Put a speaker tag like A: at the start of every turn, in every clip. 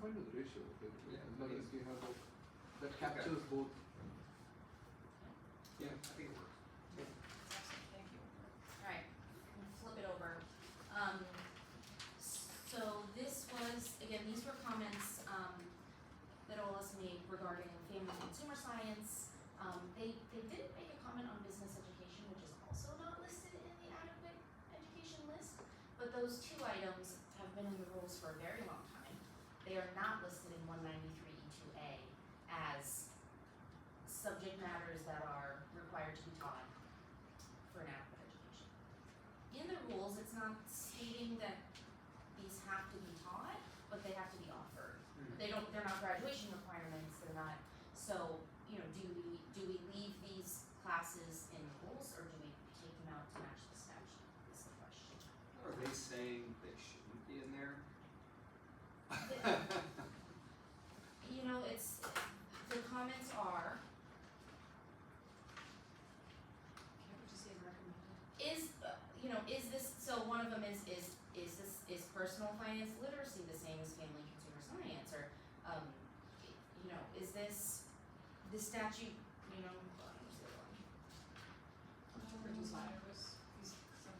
A: fine with the ratio. okay,
B: Yeah,
A: As long
B: I mean-
A: as we have that, that captures both.
B: Yeah, I think it works.
C: Excellent, thank you. Alright, flip it over. Um, so this was, again, these were comments, um, that OLS made regarding family and consumer science. Um, they, they didn't make a comment on business education, which is also not listed in the adequate education list. But those two items have been in the rules for a very long time. They are not listed in one ninety-three E two A as subject matters that are required to be taught for an adequate education. In the rules, it's not stating that these have to be taught, but they have to be offered.
B: Mhm.
C: They don't, they're not graduation requirements, they're not, so, you know, do we, do we leave these classes in the rules or do we take them out to match the statute is the question.
B: Are they saying they shouldn't be in there?
C: You know, it's, the comments are. Can I just say recommended? Is, uh, you know, is this, so one of them is, is, is this, is personal finance literacy the same as family consumer science, or, um, you know, is this, the statute, you know, hold on, where's the other one?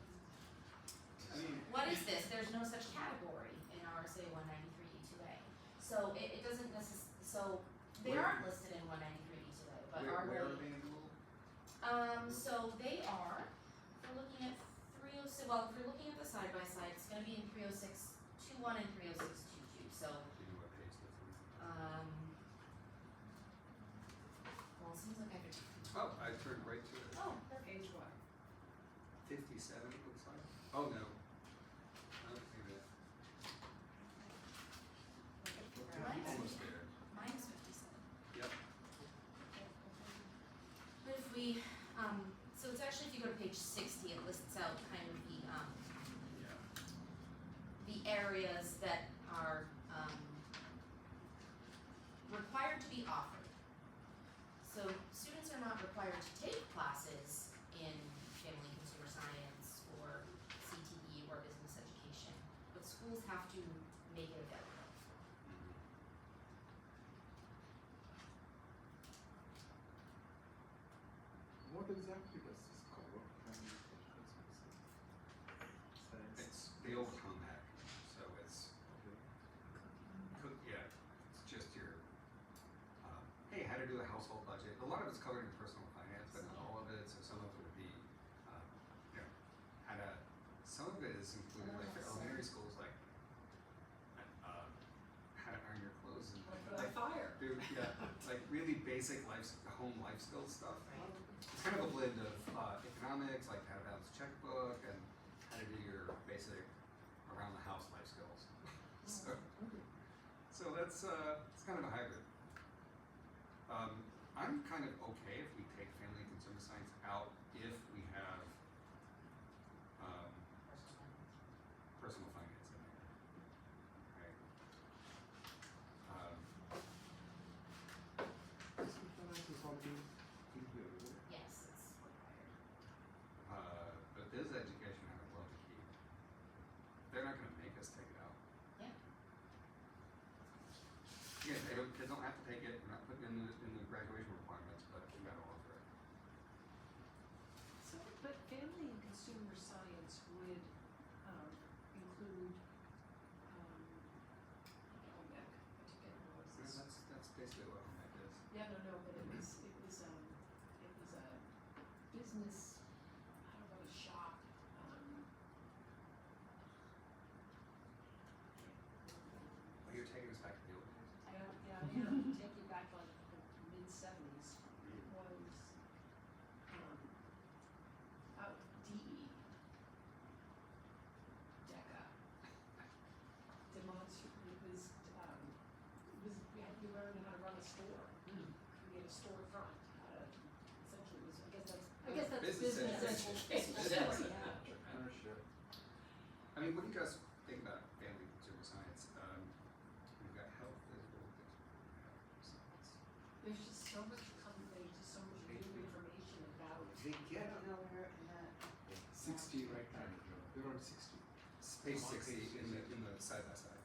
B: I mean,
C: What is this? There's no such category in RSA one ninety-three E two A. So it, it doesn't necess- so they
B: Where-
C: aren't listed in one ninety-three E two A, but
B: where,
C: are we?
B: where are they in the rule?
C: Um, so they are, if we're looking at three oh six, well, if we're looking at the side by side, it's gonna be in three oh six two one and three oh six two two, so, um. Well, it seems like I could,
B: Oh, I turned right to it.
C: oh,
D: Page what?
B: Fifty-seven, it looks like. Oh, no. I don't see that.
C: Mine's-
B: Almost there.
C: Mine is fifty-seven.
B: Yep.
C: But if we, um, so it's actually, if you go to page sixty, it lists out kind of the, um,
B: Yeah.
C: the areas that are, um, required to be offered. So students are not required to take classes in family and consumer science or CTE or business education, but schools have to make it available.
A: What exactly does this cover? Family education science. Science.
B: It's the old comeback, so it's,
A: Okay.
B: cook- yeah, it's just your, um, hey, how to do a household budget. A lot of it's covered in personal finance, but not all of it, so some of it would be, um, you know, how to, some of it is included, like for elementary schools, like, uh, how to iron your clothes and like,
D: fire.
B: do- yeah, like really basic life, home life skill stuff. It's kind of a blend of uh, economics, like how to balance a checkbook, and how to do your basic around the house life skills. so, so that's uh, it's kind of a hybrid. Um, I'm kind of okay if we take family and consumer science out if we have um, personal finance in there. Right? Um,
A: Personal finance is already in here, isn't it?
C: Yes, it's required.
B: uh, but this education I would love to keep. They're not going to make us take it out.
C: Yeah.
B: Yeah, they don't, kids don't have to take it, we're not putting it in the, in the graduation requirements, but we gotta offer it.
D: So, but family and consumer science would, um, include, um, home ec, I forget what it was.
B: That's, that's basically what home ec is.
D: Yeah, no, no, but it was, it was, um, it was a business, I don't know, a shop, um.
B: Oh, you're taking us back to the old days.
D: I don't, yeah, I am taking back like the mid seventies, it was, um, out E. DE. DECA. Demonstra, it was, um, it was, we had, we learned how to run a store. We had a storefront, how to, essentially it was, I guess that's, I guess that's
B: Business
D: business
B: education.
D: education, yeah.
A: Entrepreneurship.
B: I mean, what do you guys think about family and consumer science? Um, we've got health, there's all this. science.
D: There's just so much coming, there's just so much new information about
B: They get
D: nowhere in that.
A: Sixty right now. They're on sixty.
B: Space sixty in the, in the side by side.